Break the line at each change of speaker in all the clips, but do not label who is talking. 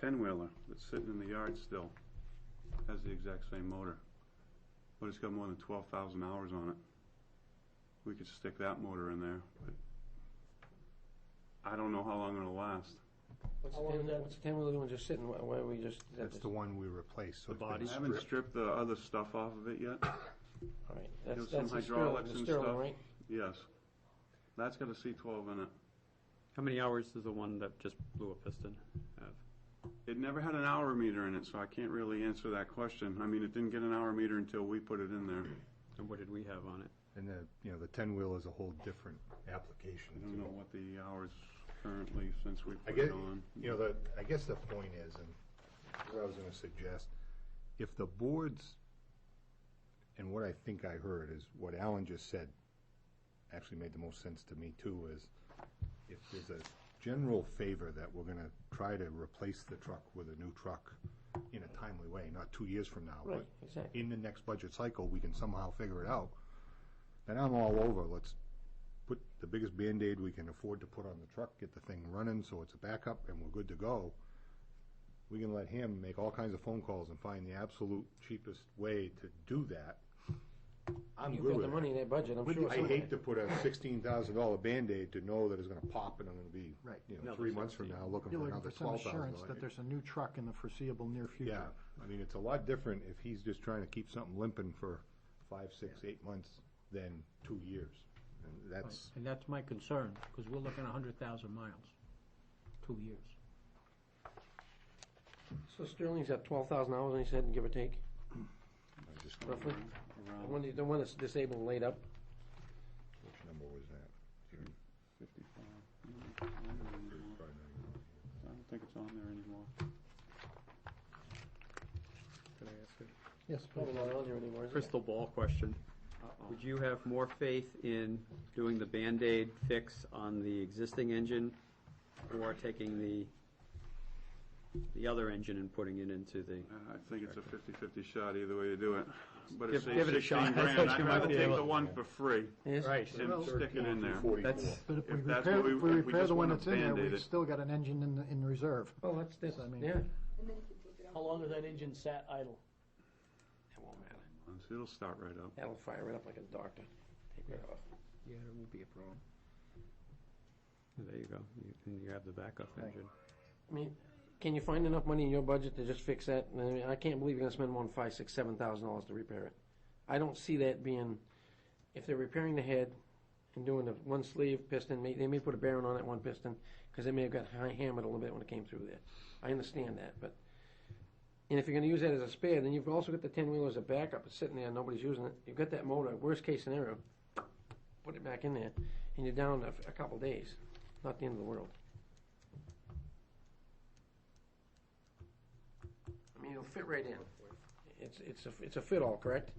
ten-wheeler that's sitting in the yard still has the exact same motor, but it's got more than twelve thousand hours on it. We could stick that motor in there, but I don't know how long it'll last.
What's the ten, what's the ten wheeler doing just sitting, why why don't we just?
That's the one we replaced.
The
so it's been
body?
I haven't
stripped.
stripped the other stuff off of it yet,
All right, that's,
There's some
that's the Sterling,
hydraulics
the
and
Sterling,
stuff.
right?
yes. That's got a C twelve in it.
How many hours does the one that just blew a piston have?
It never had an hour meter in it, so I can't really answer that question. I mean, it didn't get an hour meter until we put it in there.
And what did we have on it?
And the, you know, the ten-wheel is a whole different application.
I
to
don't know
it.
what the hours currently since we
I
put
guess,
it on.
you know, the, I guess the point is, and what I was gonna suggest, if the boards, and what I think I heard is what Alan just said, actually made the most sense to me too, is if there's a general favor that we're gonna try to replace the truck with a new truck in a timely way, not two years from now, but
Right, exactly.
in the next budget cycle, we can somehow figure it out, then I'm all over, let's put the biggest Band-Aid we can afford to put on the truck, get the thing running so it's a backup and we're good to go. We can let him make all kinds of phone calls and find the absolute cheapest way to do that. I'm
You've got
good
the
with
money
that.
in that budget, I'm sure.
I
somewhere.
hate to put a sixteen thousand dollar Band-Aid to know that it's gonna pop and I'm gonna be,
Right.
you know,
Another
three months from
16.
now looking
You're
for
looking
another
for some
twelve thousand dollars.
assurance that there's a new truck in the foreseeable near future.
Yeah, I mean, it's a lot different if he's just trying to keep something limping for five, six, eight months than two years. And that's,
And that's my concern, because we're looking a hundred thousand miles, two years.
So Sterling's at twelve thousand hours, and he said, give or take,
I just,
roughly? The
Around
one, the one that's disabled and laid up,
which number was that?
fifty-five.
Probably not even-
I don't think it's on there anymore.
Could I ask a
Yes,
not
please.
a lot on there anymore, is it?
crystal ball question? Would you have more faith in doing the Band-Aid fix on the existing engine or taking the, the other engine and putting it into the?
Uh, I think it's a fifty-fifty shot either way you do it, but it
Give-
saves
give it a
sixteen
shot.
grand. I'd
You might
rather
be
take
able
the
to-
one for free
Yes?
Right.
and
Well,
stick it in there.
44.
That's-
But if we
If that's
repair,
what we-
if we
if we
repair
just
the one
wanna
that's in there,
Band-Aid
we've
it.
still got an engine in, in reserve.
Well, that's, that's,
I mean-
yeah.
How long has that engine sat idle?
It'll start right up.
That'll fire it up like a doctor. Take it off.
Yeah, it won't be a problem.
There you go, You- and you have the backup engine.
I mean, can you find enough money in your budget to just fix that? I mean, I can't believe you're gonna spend one, five, six, seven thousand dollars to repair it. I don't see that being, if they're repairing the head and doing the one sleeve piston, may, they may put a bearing on that one piston, cause they may have got high hammered a little bit when it came through there. I understand that, but, and if you're gonna use that as a spare, then you've also got the ten wheeler as a backup, it's sitting there, nobody's using it. You've got that motor, worst case scenario, put it back in there, and you're down a, f- a couple days. Not the end of the world. I mean, it'll fit right in. It's, it's a, it's a fit-all, correct?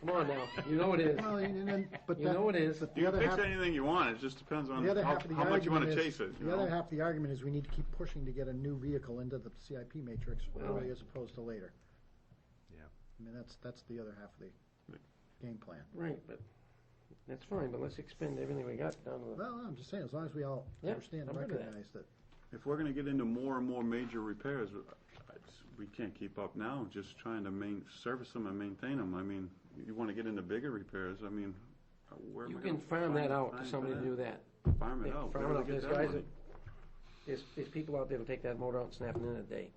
Come on now, you know it is.
Well, and then, but
You
that-
know it is.
But the
You can
other
fix
half,
anything you want, it just depends on
the other
how
half of the
how much you
argument
wanna
is-
chase it, you
The
know?
other half of the argument is we need to keep pushing to get a new vehicle into the CIP matrix early as opposed to later.
Yeah.
I mean, that's, that's the other half of the game plan.
Right, but, that's fine, but let's expend everything we got down to the,
Well, I'm just saying, as long as we all
Yeah,
understand and
I'm good with that.
recognize that
If we're gonna get into more and more major repairs, it's- we can't keep up now, just trying to main, service them and maintain them. I mean, you wanna get into bigger repairs, I mean, where am I
you
gonna
can farm
find
that
the
out
time
to
for
somebody to
that?
do that.
Farm it
Yeah,
out.
farm
oh, Where
it
do
out.
they get
There's
that
guys
money?
There's, there's people out there that'll take that motor out and snap it in a day.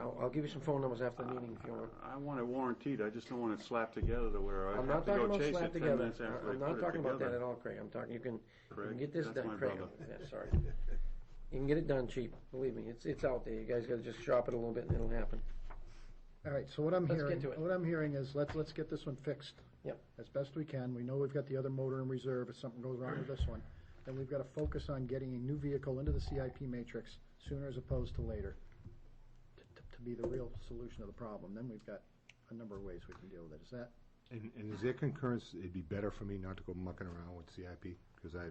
I'll, I'll give you some phone numbers after the meeting if you want.
I want it warranted, I just don't want it slapped together to where I have
I'm not
to
talking
go
about
chase
slap
it ten
together.
minutes after
I-
I
I'm
put
not
it
talking about that at
together.
all, Craig. I'm talking, you can, you
Craig?
can get this
That's
done,
my
Craig.
brother.
Yeah, sorry. You can get it done cheap, believe me. It's, it's out there. You guys gotta just shop it a little bit and it'll happen.
All right, so what I'm
Let's get
hearing,
to it.
what I'm hearing is, let's, let's get this one fixed.
Yep.
As best we can, we know we've got the other motor in reserve if something goes wrong with this one. Then we've gotta focus on getting a new vehicle into the CIP matrix sooner as opposed to later. t- t- To be the real solution to the problem, then we've got a number of ways we can deal with it, is that?
And, and is there concurrence, it'd be better for me not to go mucking around with CIP, because I,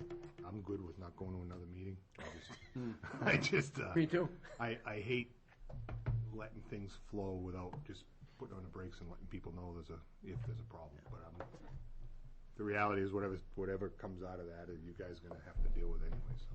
I'm good with not going to another meeting. I just- I just, uh.
Hmm. Me too.
I, I hate letting things flow without just putting on the brakes and letting people know there's a, if there's a problem, but I'm, the reality is whatever, whatever comes out of that, you guys are gonna have to deal with anyways.